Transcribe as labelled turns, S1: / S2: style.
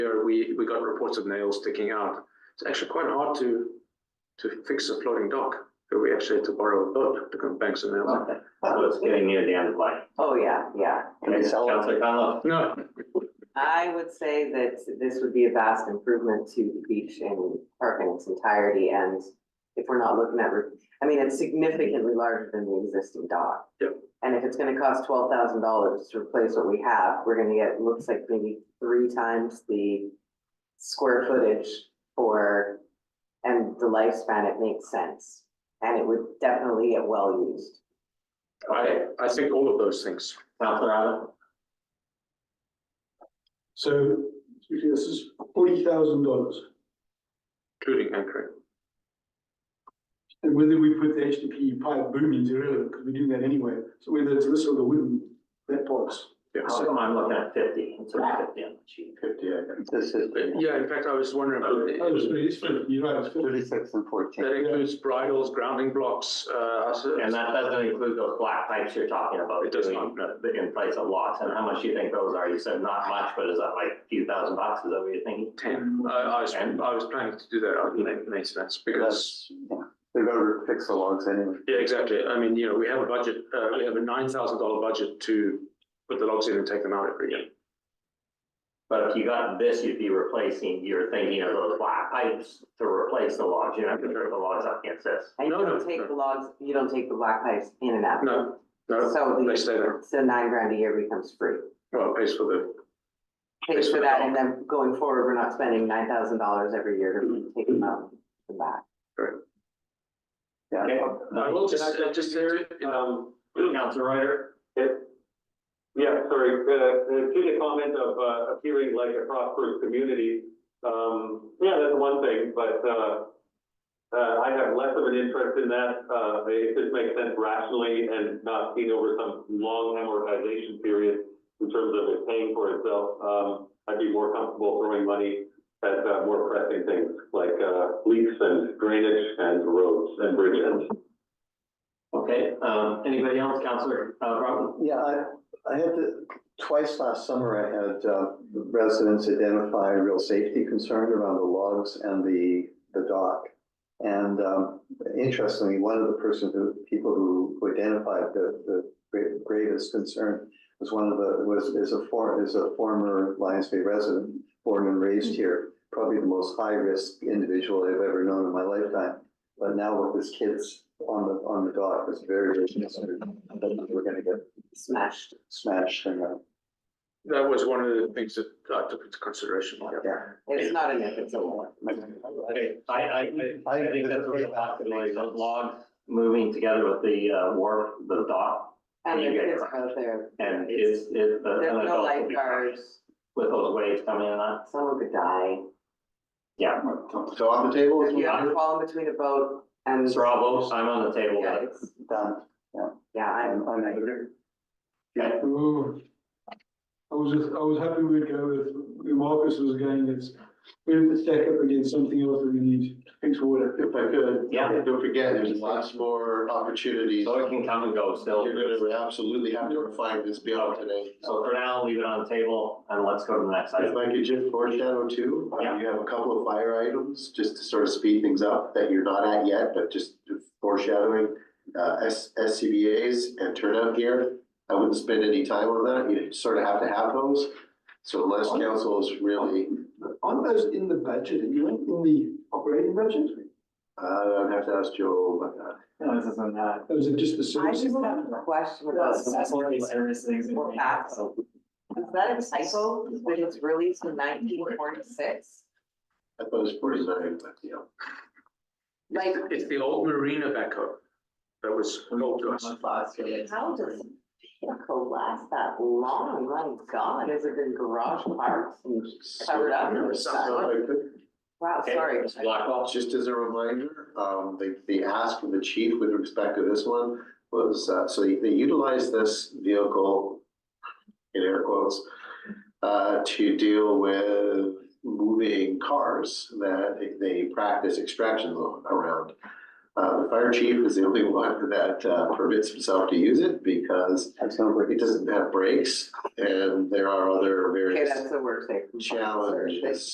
S1: year, we, we got reports of nails sticking out. It's actually quite hard to, to fix a floating dock. So we actually had to borrow a boat to come bank some nails.
S2: Oh.
S3: Okay.
S2: So it's getting near the end of life.
S3: Oh, yeah, yeah. And
S2: Okay,
S3: so
S2: Councilor Conlon?
S1: No,
S3: I would say that this would be a vast improvement to the beach and park in its entirety and if we're not looking at, re- I mean, it's significantly larger than the existing dock.
S1: Yep.
S3: And if it's gonna cost twelve thousand dollars to replace what we have, we're gonna get, looks like maybe three times the square footage for, and the lifespan, it makes sense. And it would definitely get well used.
S1: I, I think all of those things.
S2: Councilor Allen?
S4: So, excuse me, this is forty thousand dollars,
S1: Including anchoring.
S4: and whether we put the HDPE pipe boom is irrelevant, because we're doing that anyway, so whether it's this or the wind, that part's
S1: Yeah.
S2: How come I'm looking at fifty, it's around fifty on the sheet.
S4: fifty, I
S5: This
S6: Oh.
S5: is
S1: Yeah, in fact, I was wondering,
S4: guess. Oh, it's
S1: but
S4: fifty, it's fifty, you're right, it's fifty.
S5: thirty-six and
S1: that
S5: fourteen.
S1: includes bridles, grounding blocks, uh, us-
S2: And that doesn't include those black pipes you're talking about.
S1: It does
S2: doing
S1: not, no.
S2: the- In place of lots, and how much do you think those are? You said not much, but is that like a few thousand bucks, is that what you're thinking?
S1: Ten, I, I was, I was planning to do that on ma- maintenance because
S5: That's, yeah, they're gonna fix the logs anyway.
S1: Yeah, exactly. I mean, you know, we have a budget, uh, we have a nine thousand dollar budget to put the logs in and take them out every year.
S2: But if you got this, you'd be replacing, you're thinking of those black pipes to replace the logs, you're not gonna turn the logs up against this.
S3: And you
S1: No, no,
S3: don't
S1: no.
S3: take the logs, you don't take the black pipes in and out.
S1: No, no,
S3: So
S1: they stay there.
S3: the, so nine grand a year becomes free.
S1: well, it pays for the,
S3: Pays
S1: Pays for
S3: for
S1: the
S3: that and then going forward, we're not spending nine thousand dollars every year
S1: Mm-hmm.
S3: to take them out and back.
S5: Yeah.
S2: Okay.
S1: I will just, uh, just, to- you know,
S7: Um,
S2: Councilor Ryder?
S7: it, yeah, sorry, uh, to the comment of, uh, appearing like a prosperous community, um, yeah, that's one thing, but, uh, uh, I have less of an interest in that, uh, it just makes sense rationally and not seen over some long amortization period in terms of it paying for itself, um, I'd be more comfortable throwing money at, uh, more pressing things like, uh, leaks and drainage and roads and bridges.
S2: Okay, um, anybody else, Councilor, uh, Broughton?
S5: Yeah, I, I had to, twice last summer, I had uh, residents identify a real safety concern around the logs and the, the dock. And um, interestingly, one of the person who, people who who identified the, the gra- gravest concern was one of the, was, is a for, is a former Lions Bay resident, born and raised here, probably the most high-risk individual I've ever known in my lifetime. But now with his kids on the, on the dock, it's very, very concerned that we're gonna get
S3: Smashed.
S5: smash and, uh,
S1: that was one of the things that I took into consideration. yeah.
S5: yeah.
S3: It's not an if, it's a when.
S2: Okay, I, I, I think that's where the possibility of logs moving together with the, uh, wharf, the dock,
S3: And the
S2: You get it
S3: kids
S2: right.
S3: out there.
S2: and is, is. the-
S3: There's
S2: an
S3: no
S2: adult will be-
S3: lifeguards,
S2: With those waves coming in on,
S3: someone could die.
S2: yeah.
S5: So on the table,
S3: If you have to
S2: not-
S3: fall in between a boat and,
S2: Mr. Albo, I'm on the table.
S3: yeah, it's,
S5: done.
S3: yeah, I'm,
S5: I'm, I'm angry.
S4: Ooh. I was just, I was happy we'd go with, where Marcus was going, it's, we have to stack up against something else that we need, to fix water.
S6: If I could.
S2: Yeah.
S6: Don't forget, there's lots more opportunities.
S2: So it can come and go still.
S6: You're gonna absolutely have to refine this beyond today.
S2: So for now, leave it on the table and let's go to the next
S6: If
S2: item.
S6: I could just foreshadow too, uh,
S2: Yeah.
S6: you have a couple of fire items, just to sort of speed things up, that you're not at yet, but just foreshadowing. Uh, S, SCBA's and turnout gear, I wouldn't spend any time on that, you sort of have to have those. So unless council is really,
S4: Aren't those in the budget, you know, in the operating budget?
S6: uh, I'd have to ask Joe about that.
S8: No, this isn't that.
S4: Or is it just the
S3: I
S4: services?
S3: just have a question about.
S8: That's more service things. and-
S3: Or facts. Is that a typo that it's released in nineteen forty-six?
S6: I thought it was forty-nine, but yeah.
S3: Like,
S1: It's the old marina backhoe that was sold to us.
S3: how does vehicle last that long? My God, has it been garage parks and covered up? or
S6: Sounds
S3: something?
S6: like it.
S3: Wow,
S2: Okay,
S3: sorry.
S2: Mr. Blackwell?
S6: Just as a reminder, um, the, the ask from the chief with respect to this one was, uh, so they utilize this vehicle in air quotes, uh, to deal with moving cars that they practice extractions on around. Uh, fire chief is the only one that uh, permits himself to use it because
S5: That's not
S6: it doesn't have brakes and there are other
S3: Okay,
S6: various
S3: that's a work safety. concern.
S6: challenges.